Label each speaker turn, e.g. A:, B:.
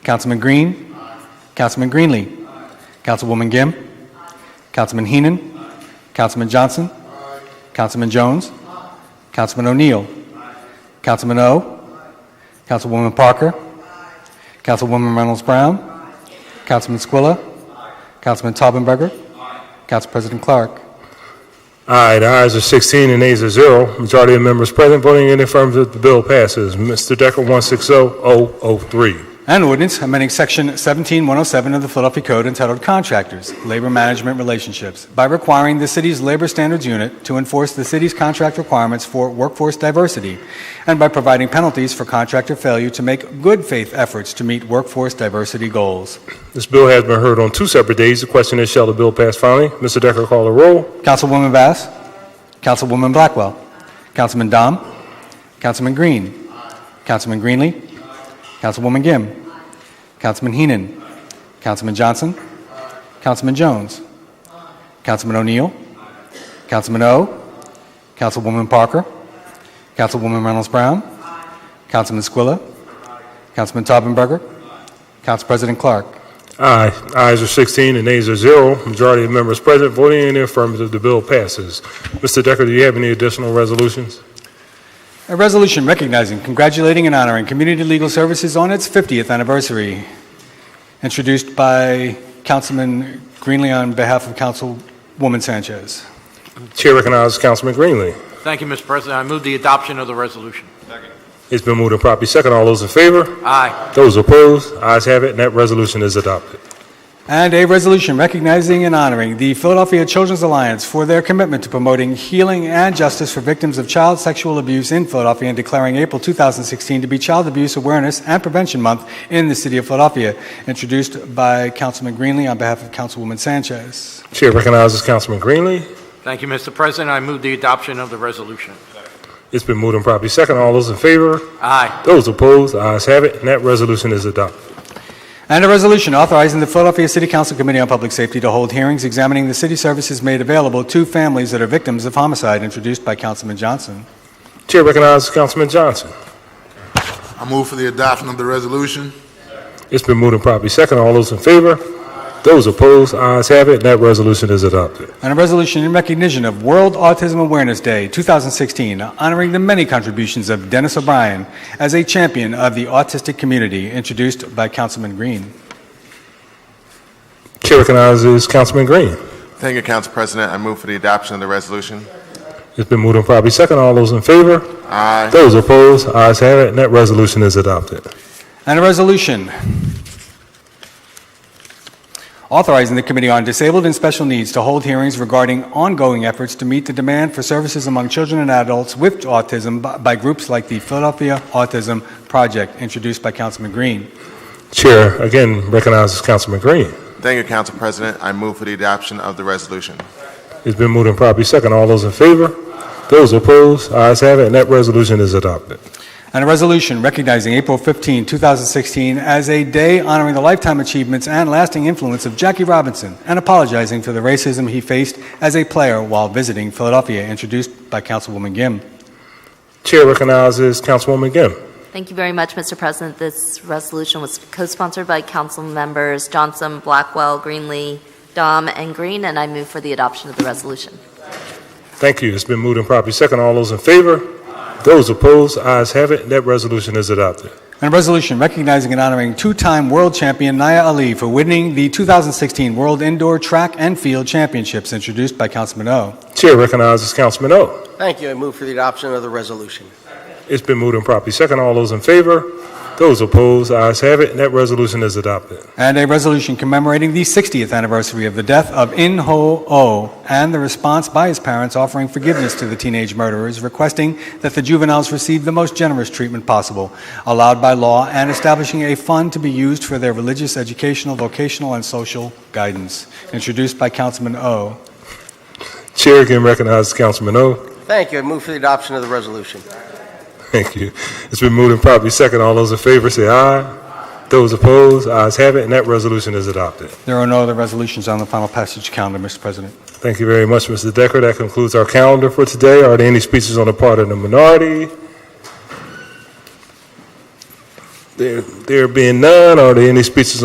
A: Councilman Green. Councilman Greenlee. Councilwoman Gim. Councilman Heenan. Councilman Johnson. Councilman Jones. Councilman O'Neill. Councilman O. Councilwoman Parker. Councilwoman Reynolds Brown. Councilman Squilla. Councilman Taubenberger. Council President Clark.
B: Aye, the ayes are 16 and nays are 0. Majority of members present voting in the affirmative, the bill passes. Mr. Decker, oh, 160003.
A: An ordinance amending Section 17107 of the Philadelphia Code entitled Contractors, Labor Management Relationships by requiring the city's Labor Standards Unit to enforce the city's contract requirements for workforce diversity and by providing penalties for contractor failure to make good faith efforts to meet workforce diversity goals.
B: This bill has been heard on two separate days. The question is, shall the bill pass finally? Mr. Decker, call the roll.
A: Councilwoman Bass. Councilwoman Blackwell. Councilman Dom. Councilman Green. Councilman Greenlee. Councilwoman Gim. Councilman Heenan. Councilman Johnson. Councilman Jones. Councilman O'Neill. Councilman O. Councilwoman Parker. Councilwoman Reynolds Brown. Councilman Squilla. Councilman Taubenberger. Council President Clark.
B: Aye, ayes are 16 and nays are 0. Majority of members present voting in the affirmative, the bill passes. Mr. Decker, do you have any additional resolutions?
A: A resolution recognizing, congratulating, and honoring Community Legal Services on its 50th anniversary, introduced by Councilman Greenlee on behalf of Councilwoman Sanchez.
B: Chair recognizes Councilman Greenlee.
C: Thank you, Mr. President. I move the adoption of the resolution.
B: It's been moved and properly second. All those in favor?
C: Aye.
B: Those opposed? Ayes have it, and that resolution is adopted.
A: And a resolution recognizing and honoring the Philadelphia Children's Alliance for their commitment to promoting healing and justice for victims of child sexual abuse in Philadelphia and declaring April 2016 to be Child Abuse Awareness and Prevention Month in the City of Philadelphia, introduced by Councilman Greenlee on behalf of Councilwoman Sanchez.
B: Chair recognizes Councilman Greenlee.
C: Thank you, Mr. President. I move the adoption of the resolution.
B: It's been moved and properly second. All those in favor?
C: Aye.
B: Those opposed? Ayes have it, and that resolution is adopted.
A: And a resolution authorizing the Philadelphia City Council Committee on Public Safety to hold hearings examining the city services made available to families that are victims of homicide, introduced by Councilman Johnson.
B: Chair recognizes Councilman Johnson.
D: I move for the adoption of the resolution.
B: It's been moved and properly second. All those in favor? Those opposed? Ayes have it, and that resolution is adopted.
A: And a resolution in recognition of World Autism Awareness Day 2016, honoring the many contributions of Dennis O'Brien as a champion of the autistic community, introduced by Councilman Green.
B: Chair recognizes Councilman Green.
D: Thank you, Council President. I move for the adoption of the resolution.
B: It's been moved and properly second. All those in favor?
D: Aye.
B: Those opposed? Ayes have it, and that resolution is adopted.
A: And a resolution authorizing the Committee on Disabled and Special Needs to hold hearings regarding ongoing efforts to meet the demand for services among children and adults with autism by- by groups like the Philadelphia Autism Project, introduced by Councilman Green.
B: Chair again recognizes Councilman Green.
D: Thank you, Council President. I move for the adoption of the resolution.
B: It's been moved and properly second. All those in favor? Those opposed? Ayes have it, and that resolution is adopted.
A: And a resolution recognizing April 15, 2016 as a day honoring the lifetime achievements and lasting influence of Jackie Robinson and apologizing for the racism he faced as a player while visiting Philadelphia, introduced by Councilwoman Gimm.
B: Chair recognizes Councilwoman Gimm.
E: Thank you very much, Mr. President. This resolution was co-sponsored by council members Johnson, Blackwell, Greenlee, Dom, and Green, and I move for the adoption of the resolution.
B: Thank you. It's been moved and properly second. All those in favor? Those opposed? Ayes have it, and that resolution is adopted.
A: And a resolution recognizing and honoring two-time world champion Naya Ali for winning the 2016 World Indoor Track and Field Championships, introduced by Councilman O.
B: Chair recognizes Councilman O.
F: Thank you. I move for the adoption of the resolution.
B: It's been moved and properly second. All those in favor? Those opposed? Ayes have it, and that resolution is adopted.
A: And a resolution commemorating the 60th anniversary of the death of In Ho Oh and the response by his parents offering forgiveness to the teenage murderers, requesting that the juveniles receive the most generous treatment possible allowed by law and establishing a fund to be used for their religious, educational, vocational, and social guidance, introduced by Councilman O.
B: Chair again recognizes Councilman O.
F: Thank you. I move for the adoption of the resolution.
B: Thank you. It's been moved and properly second. All those in favor say aye. Those opposed? Ayes have it, and that resolution is adopted.
A: There are no other resolutions on the final passage calendar, Mr. President.
B: Thank you very much, Mr. Decker. That concludes our calendar for today. Are there any speeches on the part of the minority? There there being none, are there any speeches